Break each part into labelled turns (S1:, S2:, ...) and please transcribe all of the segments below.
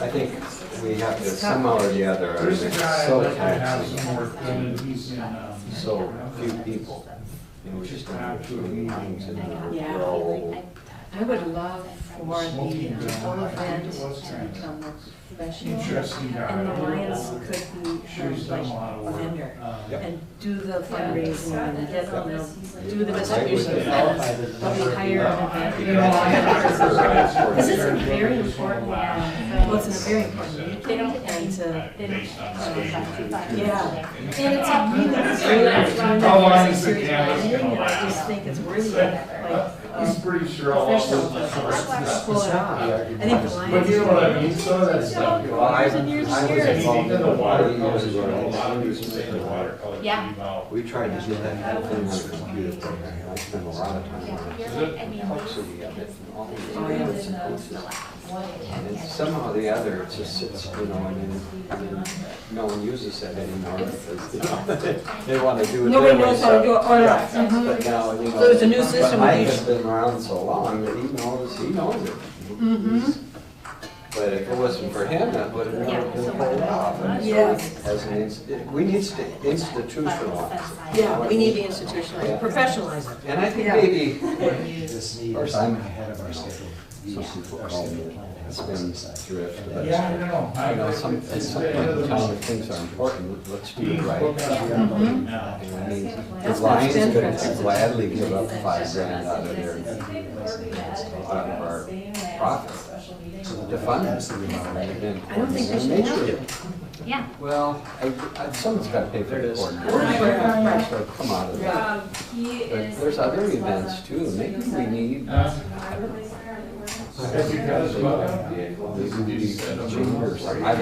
S1: I think we have to somehow or the other, I mean,
S2: There's a
S1: it's
S2: guy
S1: so
S2: that has
S1: taxing,
S2: some work done, and he's in, um,
S1: so few people. And we just don't have too many times in
S3: Yeah.
S1: we're all old.
S3: I would love for the uh,
S2: Smoking
S3: elephant
S2: gun.
S3: to become more professional.
S2: Interesting guy.
S3: And the Lions could be
S2: Sure, he's done a lot of
S3: like
S2: work.
S3: vendor
S2: Um,
S1: Yep.
S3: and do the fundraising and get them, to do the
S1: I
S3: distribution
S1: would-
S3: of funds, but we hire an
S2: You know,
S3: event.
S2: I-
S3: Because it's
S1: Right.
S3: a very important, uh, well, it's a very important meeting and uh, to, yeah. And it's a meeting that's really,
S2: How long is the
S3: serious,
S2: canvas
S3: meeting,
S2: gonna
S3: I just
S2: last?
S3: think it's worthy of like,
S2: He's
S3: uh,
S2: pretty sure all of
S3: professional.
S2: this
S3: Just
S2: stuff.
S3: pull it out. I think the Lions.
S2: But you know what I mean, so that stuff. you know,
S1: Well, I, I
S2: I-
S1: was involved
S2: Anything
S1: in
S2: in
S1: the
S2: the
S1: water
S2: water
S1: years
S2: colors, you know, a
S1: ago.
S2: lot of people say the water colors
S4: Yeah.
S2: leave out.
S1: We tried to do that whole thing on the computer program, and I spent a lot of time on it. Complexity of it and all these
S3: Oh,
S1: different sequences. And it's somehow or the other, it just sits, you know, and then, and then no one uses it anymore because, you know, they want to do it their
S3: Nobody
S1: way.
S3: knows how to do it,
S1: so-
S3: or
S1: Yeah.
S3: not. Mhm.
S1: But now, you know.
S3: So it's a new
S1: But
S3: system
S1: Mike
S3: we
S1: has
S3: use.
S1: been around so long that he knows, he knows it.
S3: Mhm.
S1: But if it wasn't for him, that would have never been pulled off. And so
S3: Yes.
S1: As an, ins- it- we need to institutionalize. it.
S3: Yeah, we need to institutionalize, professionalize it.
S1: And I think
S3: Yeah.
S1: maybe,
S5: This need
S1: Or
S5: is
S1: some-
S5: ahead of our schedule.
S1: some people call me, it's been drift, but.
S2: Yeah, I know. I
S1: You know, some,
S2: it's- it's-
S1: sometimes things are important, let's do it
S2: Dean's
S1: right.
S2: book out
S5: Yeah.
S2: here.
S1: I mean, The
S3: That's
S1: Lions
S3: been
S1: could
S3: practiced.
S1: gladly give up five grand out of their, out of our profit to fund
S5: That's
S1: it.
S5: the remodeling.
S1: And
S3: I don't think they should
S1: make
S3: have
S1: sure-
S3: to.
S4: Yeah.
S1: Well, I, I, someone's got to pay for the coordinator,
S3: Right.
S1: so come out of that.
S6: Um, he
S1: But
S6: is.
S1: there's other events too, maybe we need.
S2: Huh? Have you got his book out?
S1: I've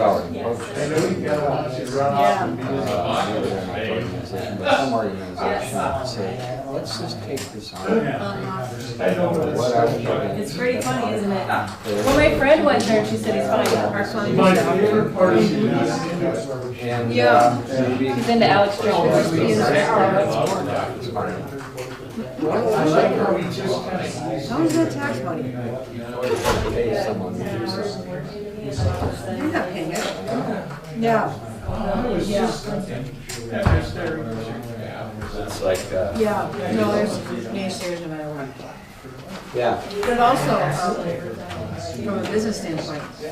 S1: already approached.
S2: I know you've got a lot to run
S3: Yeah.
S2: off and be in the bottom of the bay.
S1: organization, but some organization would say, let's just take this on.
S2: I know what it's.
S1: What are we doing?
S3: It's pretty funny, isn't it?
S1: Well,
S3: Well, my friend went there and she said it's fine, our client.
S2: My favorite part is when
S3: Uh,
S2: I sit there.
S1: And,
S3: Yeah.
S1: uh, maybe.
S3: She's into Alex Jones. She's an artist.
S2: I like how we just kind of.
S3: How is that tax money?
S1: Pay someone to do something.
S3: You're not paying it. Yeah,
S2: I was
S3: Yeah.
S2: just thinking, that was there. Yeah.
S1: It's like, uh,
S3: yeah, no, there's naysayers no matter what.
S1: yeah.
S3: But also, um, from a business standpoint, we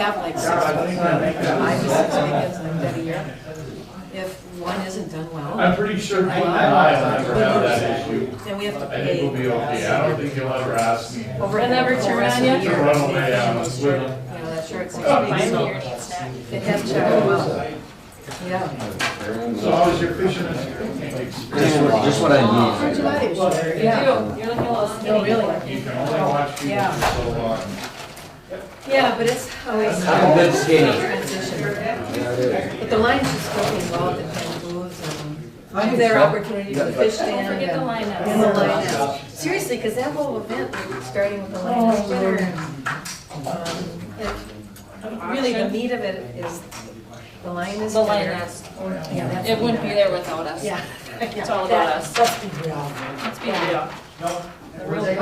S3: have like six,
S2: I think I make that.
S3: five to six meetings like that a year. If one isn't done well,
S2: I'm pretty sure Clinton and I will never have that issue.
S3: then we have to
S2: I think we'll be
S3: pay.
S2: okay. I don't think you'll ever ask me.
S3: over never turn on you?
S2: To run away, I was with them.
S3: You know, that shirt seems
S2: Oh,
S3: to be so- It has to go well. Yeah.
S2: So how was your fishing experience?
S1: Just what I
S3: For July, it was-
S2: Yeah.
S3: yeah. You're looking a little skinny. Really?
S2: You can only watch people for so long.
S3: Yeah, but it's always.
S1: I'm a bit skinny.
S3: Transition.
S1: need.
S3: But the Lions should still be involved in kind of moves and their opportunity to fish stand.
S4: Don't forget the lineup.
S3: And the lineup. Seriously, because that whole event, starting with the Lions dinner. um, it- Really, the meat of it is the Lions.
S4: The
S3: dinner.
S4: lioness.
S3: Yeah, that's
S4: It
S3: the
S4: wouldn't be
S3: meat
S4: there without us.
S3: Yeah.
S4: It's all about
S3: That-
S4: us.
S3: Let's be real.
S4: Let's be real. The real
S3: Yeah.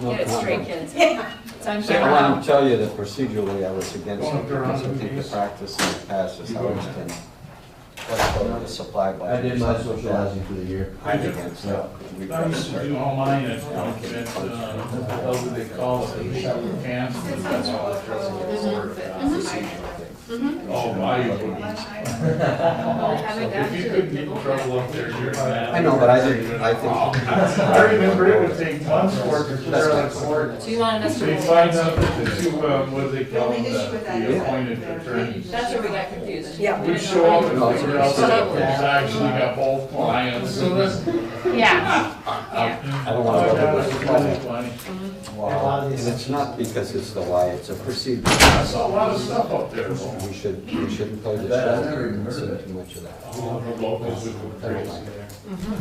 S4: Get it straight, kids. It's on
S1: I
S4: camera.
S1: want to tell you that procedurally, I was against it, because I think the practice in the past is how it's been. What's called the supply budget.
S5: I did my socializing for the year.
S1: I'm against that. uh, We-
S2: I used to do all mine at, at, uh, what do they call it, the shallow camps, and that's all it was. Oh, my. If you could get in trouble up there, you're mad.
S1: I know, but I didn't, I think,
S2: Oh. I remember it would take months for it to clear on the court.
S4: So you wanted us to.
S2: So you find out that the two, um, what do they call them, the the appointed attorneys.
S4: That's where we got confused.
S3: Yeah.
S2: We show up and figure out that it's actually got both clients.
S4: Yeah.
S1: I don't
S2: Oh,
S1: want to.
S2: that was really funny.
S1: And it's not because it's the why, it's a procedure.
S2: I saw a lot of stuff up there. though.
S1: We should, we shouldn't play the
S5: Bet I
S1: shelter
S5: never even
S1: and
S5: heard of
S1: see
S5: it.
S1: too much of that.
S2: The locals would go crazy.
S5: Mm-hmm.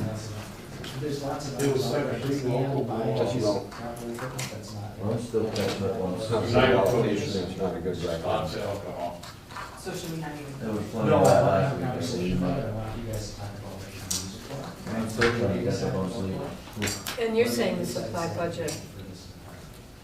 S5: There's lots of.
S2: It was like a big local
S1: But you
S2: wall.
S1: know,
S5: I'm still catching up on
S1: it's
S5: some.
S1: not a good allocation, it's not a good record.
S2: Lots of alcohol.
S6: So should we not even?
S5: That was fun.
S2: No, I-
S5: Last week, I said, I'm still trying to catch up on sleep.
S3: And you're saying the supply budget